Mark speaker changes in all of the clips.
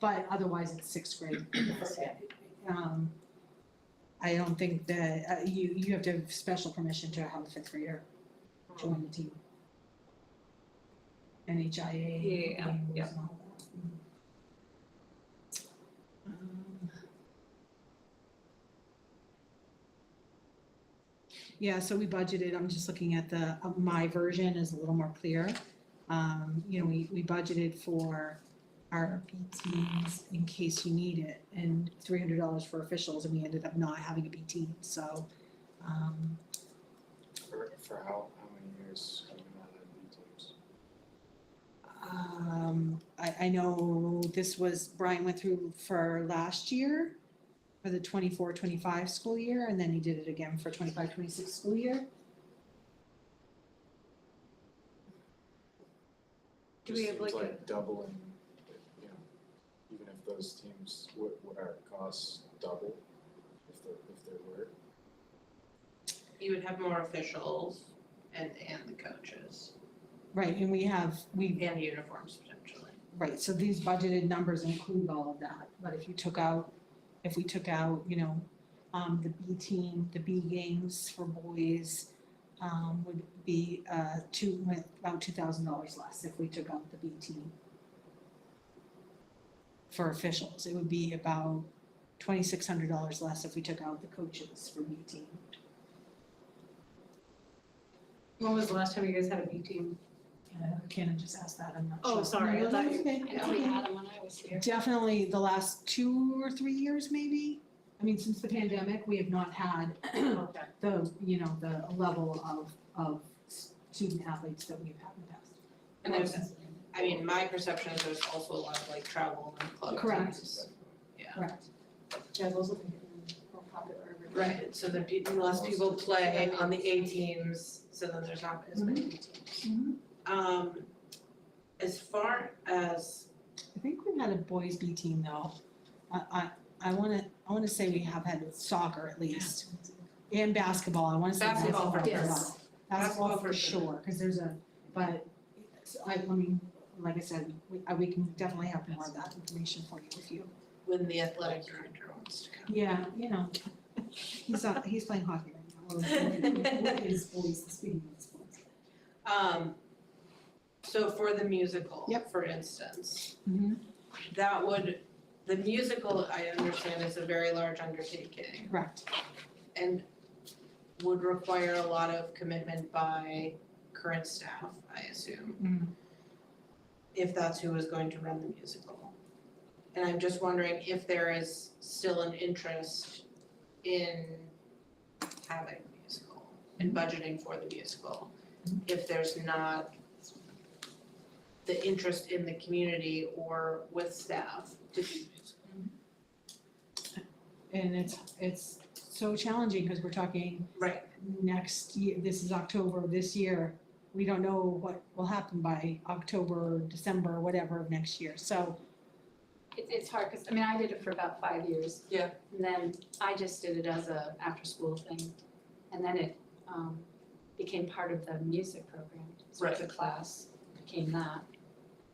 Speaker 1: but otherwise it's sixth grade. Um, I don't think that, uh, you, you have to have special permission to have a fifth grader join the team. NHIA.
Speaker 2: Yeah, yeah.
Speaker 1: rules and all that. mm. Um, Yeah, so we budgeted, I'm just looking at the, uh, my version is a little more clear. Um, you know, we, we budgeted for our BTs in case you need it and three hundred dollars for officials and we ended up not having a BT, so, um,
Speaker 3: For, for how, how many years have we not had B teams?
Speaker 1: Um, I, I know this was, Brian went through for last year, for the 24-25 school year, and then he did it again for 25-26 school year.
Speaker 2: Do we have,
Speaker 3: Just
Speaker 2: like,
Speaker 3: seems like doubling, you know, even if those teams, would, would our costs double if there, if there were?
Speaker 4: You would have more officials and, and the coaches
Speaker 1: Right, and we have, we,
Speaker 4: and uniforms potentially.
Speaker 1: right, so these budgeted numbers include all of that, but if you took out, if we took out, you know, um, the B team, the B games for boys, um, would be, uh, two, about two thousand dollars less if we took out the B team. For officials, it would be about twenty-six hundred dollars less if we took out the coaches for B team.
Speaker 2: When was the last time you guys had a B team?
Speaker 1: Uh, Cannon just asked that, I'm not sure.
Speaker 2: Oh, sorry, I
Speaker 1: No,
Speaker 2: thought
Speaker 1: that's
Speaker 2: you,
Speaker 1: okay.
Speaker 2: I know we had them when I was here.
Speaker 1: Definitely the last two or three years, maybe. I mean, since the pandemic, we have not had
Speaker 2: Okay.
Speaker 1: the, you know, the level of, of student athletes that we've had in the past.
Speaker 4: And there's, I mean, my perception is there's also a lot of like travel and club
Speaker 1: Correct.
Speaker 4: teams.
Speaker 1: Correct.
Speaker 2: Yeah, those look more popular.
Speaker 4: Right, so the pe- less people play on the A teams, so then there's not as many B teams.
Speaker 1: Mhm.
Speaker 4: Um, as far as,
Speaker 1: I think we've had a boys B team though. I, I, I wanna, I wanna say we have had soccer at least. And basketball, I wanna say basketball.
Speaker 4: Basketball for
Speaker 1: as
Speaker 2: sure.
Speaker 1: well. Basketball
Speaker 4: Basketball
Speaker 1: for
Speaker 4: for
Speaker 1: sure, cause there's a, but, so I, I mean, like I said, we, I- we can definitely have more of that information for you if you
Speaker 4: when the athletic director wants to come.
Speaker 1: Yeah, you know, he's not, he's playing hockey right now. Well, His voice, speaking of his voice.
Speaker 4: Um, so for the musical,
Speaker 1: Yep.
Speaker 4: for instance,
Speaker 1: Mm-hmm,
Speaker 4: that would, the musical, I understand, is a very large undertaking.
Speaker 1: correct.
Speaker 4: and would require a lot of commitment by current staff, I assume, if that's who is going to run the musical. And I'm just wondering if there is still an interest in having a musical and budgeting for the musical. If there's not the interest in the community or with staff to do musical.
Speaker 1: And it's, it's so challenging because we're talking
Speaker 4: Right,
Speaker 1: next year, this is October of this year. We don't know what will happen by October, December, whatever of next year. So,
Speaker 2: It's, it's hard, cause I mean, I did it for about five years.
Speaker 4: Yeah.
Speaker 2: And then I just did it as a after-school thing, and then it, um, became part of the music program. So the
Speaker 4: Right.
Speaker 2: class became that.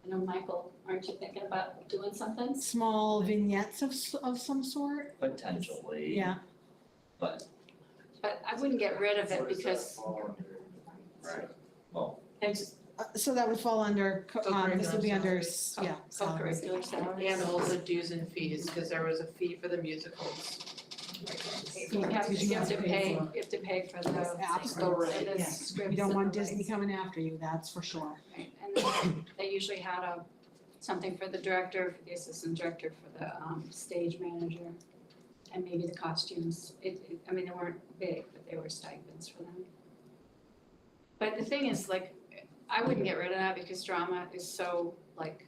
Speaker 2: I know, Michael, aren't you thinking about doing something?
Speaker 1: small vignettes of, s- of some sort,
Speaker 5: Potentially.
Speaker 1: yeah.
Speaker 5: But,
Speaker 2: But I wouldn't get rid of it
Speaker 3: What does that
Speaker 2: because
Speaker 3: fall under?
Speaker 4: Right.
Speaker 5: well,
Speaker 2: it's just
Speaker 1: Uh, So that would fall under, co- um, this would be under, s- yeah,
Speaker 2: co- co-curricular salaries.
Speaker 4: and also dues and fees, cause there was a fee for the musicals.
Speaker 2: You have to,
Speaker 1: Because you
Speaker 2: you have
Speaker 1: have
Speaker 2: to
Speaker 1: to pay
Speaker 2: pay,
Speaker 1: for-
Speaker 2: you have to pay for
Speaker 1: Those
Speaker 2: the.
Speaker 1: apps,
Speaker 4: Right.
Speaker 2: and the
Speaker 1: yeah.
Speaker 2: scripts
Speaker 1: You don't
Speaker 2: and
Speaker 1: want
Speaker 2: the
Speaker 1: Disney
Speaker 2: rights.
Speaker 1: coming after you, that's for sure.
Speaker 2: Right, and then they usually had a, something for the director, for the assistant director, for the um stage manager, and maybe the costumes. It, it, I mean, they weren't big, but they were stipends for them. But the thing is, like, I wouldn't get rid of that because drama is so, like,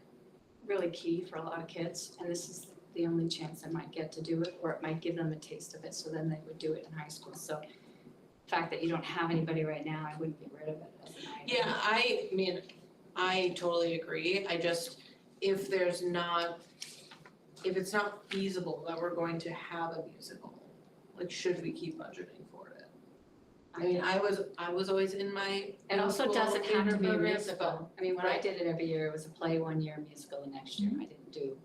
Speaker 2: really key for a lot of kids. And this is the only chance they might get to do it, or it might give them a taste of it, so then they would do it in high school. So the fact that you don't have anybody right now, I wouldn't get rid of it as an item.
Speaker 4: Yeah, I mean, I totally agree, I just, if there's not, if it's not feasible that we're going to have a musical, like, should we keep budgeting for it? I mean, I was, I was always in my
Speaker 2: It also
Speaker 4: School
Speaker 2: doesn't have to
Speaker 4: theater
Speaker 2: be a
Speaker 4: program,
Speaker 2: musical. I mean, when I
Speaker 4: Right.
Speaker 2: did it every year, it was a play one year, musical the next year. I didn't do